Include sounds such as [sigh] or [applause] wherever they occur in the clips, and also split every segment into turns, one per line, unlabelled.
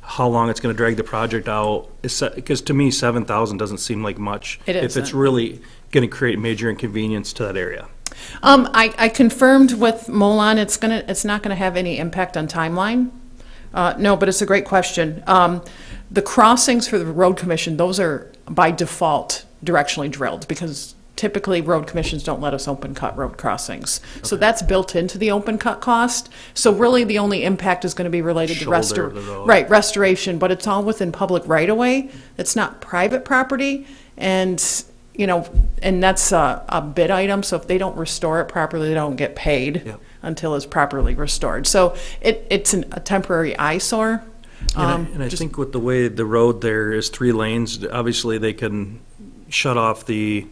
how long it's gonna drag the project out, because to me, seven thousand doesn't seem like much.
It
If it's
isn't.
really gonna create major inconvenience to that area.
Um, I, I confirmed with Molon, it's gonna, it's not gonna have any impact on timeline. Uh, no, but it's a great question. Um, the crossings for the road commission, those are by default directionally drilled because typically road commissions don't let us open cut road crossings. So that's built into the open cut cost. So really the only impact is gonna be related to
Shoulder of
restor-
the road.
right, restoration, but it's all within public right of way. It's not private property. And, you know, and that's a, a bid item, so if they don't restore it properly, they don't get paid
Yep.
until it's properly restored. So it, it's an, a temporary eyesore.
And I,
Um,
and I think with the way the road there is three lanes, obviously they can shut off the,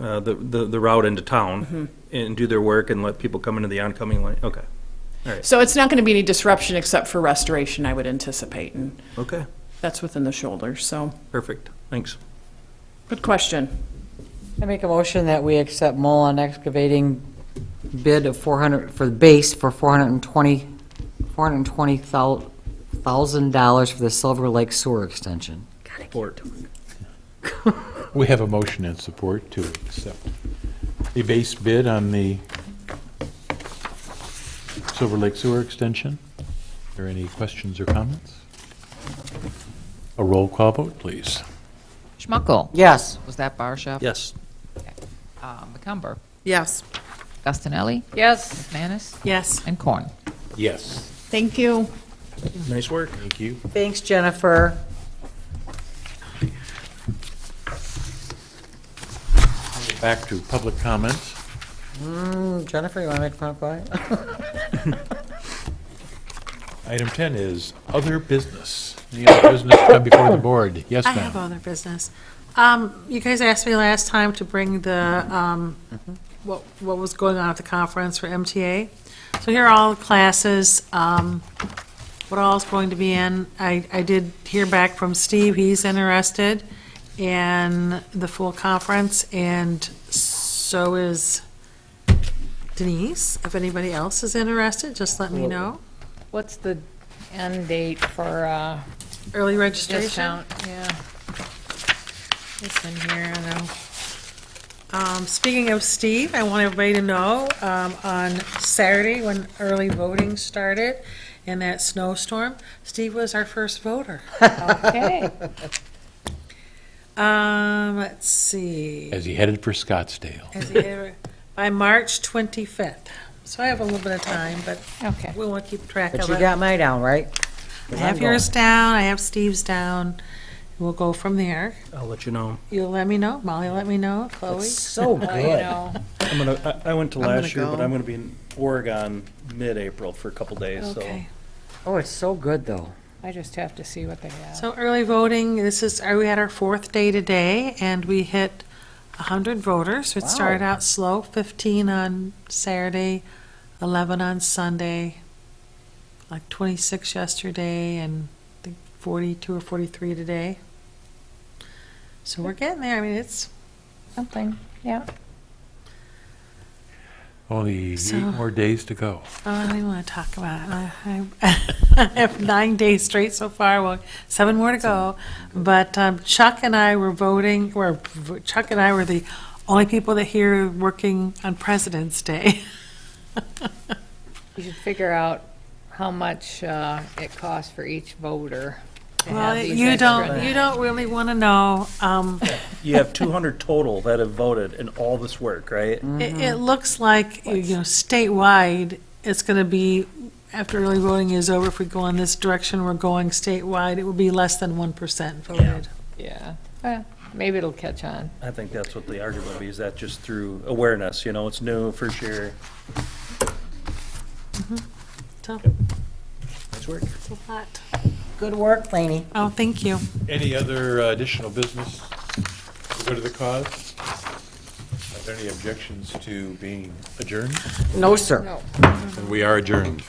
uh, the, the the route into
Mm-hmm.
town and do their work and let people come into the oncoming lane, okay,
So it's not going to be any disruption except for restoration, I would anticipate, and
okay,
that's within the shoulder, so,
perfect, thanks.
good question.
I make a motion that we accept Mullen excavating bid of 400, for the base for 420, $420,000 for the Silver Lake Sewer Extension.
Support.
We have a motion and support to accept the base bid on the Silver Lake Sewer Extension. Are there any questions or comments? A roll call vote, please.
Schmuckel.
Yes.
Was that Barsha?
Yes.
Uh, McCumber.
Yes.
Gustinelli.
Yes.
Manis.
Yes.
And Corn.
Yes.
Thank you.
Nice work.
Thank you.
Thanks, Jennifer.
Back to public comments.
Mm, Jennifer, you want to make a comment? about it?
Item 10 is other business. Any other business come before the board? Yes,
I have
ma'am.
other business. Um, You guys asked me last time to bring the, um, what what was going on at the conference for MTA. So here are all the classes, um, what all is going to be in. I I did hear back from Steve, he's interested in the full conference, and so is Denise. If anybody else is interested, just let me know.
What's the end date for uh,
Early registration.
discount? Yeah. It's in here, I know.
Um, Speaking of Steve, I want everybody to know, um, on Saturday, when early voting started in that snowstorm, Steve was our first voter.
Okay.
Um, Let's see.
As he headed for Scottsdale.
Is he ever- By March 25th. So I have a little bit of time, but
Okay.
we won't keep track
But
of
you
it.
got mine down, right?
I
'Cause I'm
have
going.
yours down, I have Steve's down. We'll go from there.
I'll let you know.
You'll let me know, Molly let me know, Chloe.
So
Well, you
good.
know,
I'm gonna, I, I went to
I'm
last
gonna
year, but
go.
I'm gonna be in Oregon mid-April for a couple days, so.
Okay.
Oh, it's so good, though.
I just have to see what they have.
So early voting, this is, uh, we had our fourth day today, and we hit 100 voters. It
Wow.
started out slow, 15 on Saturday, 11 on Sunday, like 26 yesterday, and I think 42 or 43 today. So we're getting there. I mean, it's,
Something, yeah.
Only eight
So-
more days to go.
oh, I don't even want to talk about it. I I- [laughs] I have nine days straight so far, well, seven more to go. But um, Chuck and I were voting, or Chuck and I were the only people that here working on President's Day.
You should figure out how much uh, it costs for each voter to have
Well,
these
you
extra
don't,
nights.
you don't really want to know. Um,
You have two hundred total that have voted in all this work, right?
It, it
Mm-hmm.
looks like, you know, statewide, it's going to be, after early voting is over, if we go in this direction we're going statewide, it will be less than 1% voted.
Yeah. Well, Maybe it'll catch on.
I think that's what the argument would be, is that just through awareness, you know, it's new, first year,
So,
nice work.
it's a lot.
Good work, Laney.
Oh, thank you.
Any other uh, additional business to go to the cause? Are there any objections to being adjourned?
No, sir.
And we are adjourned.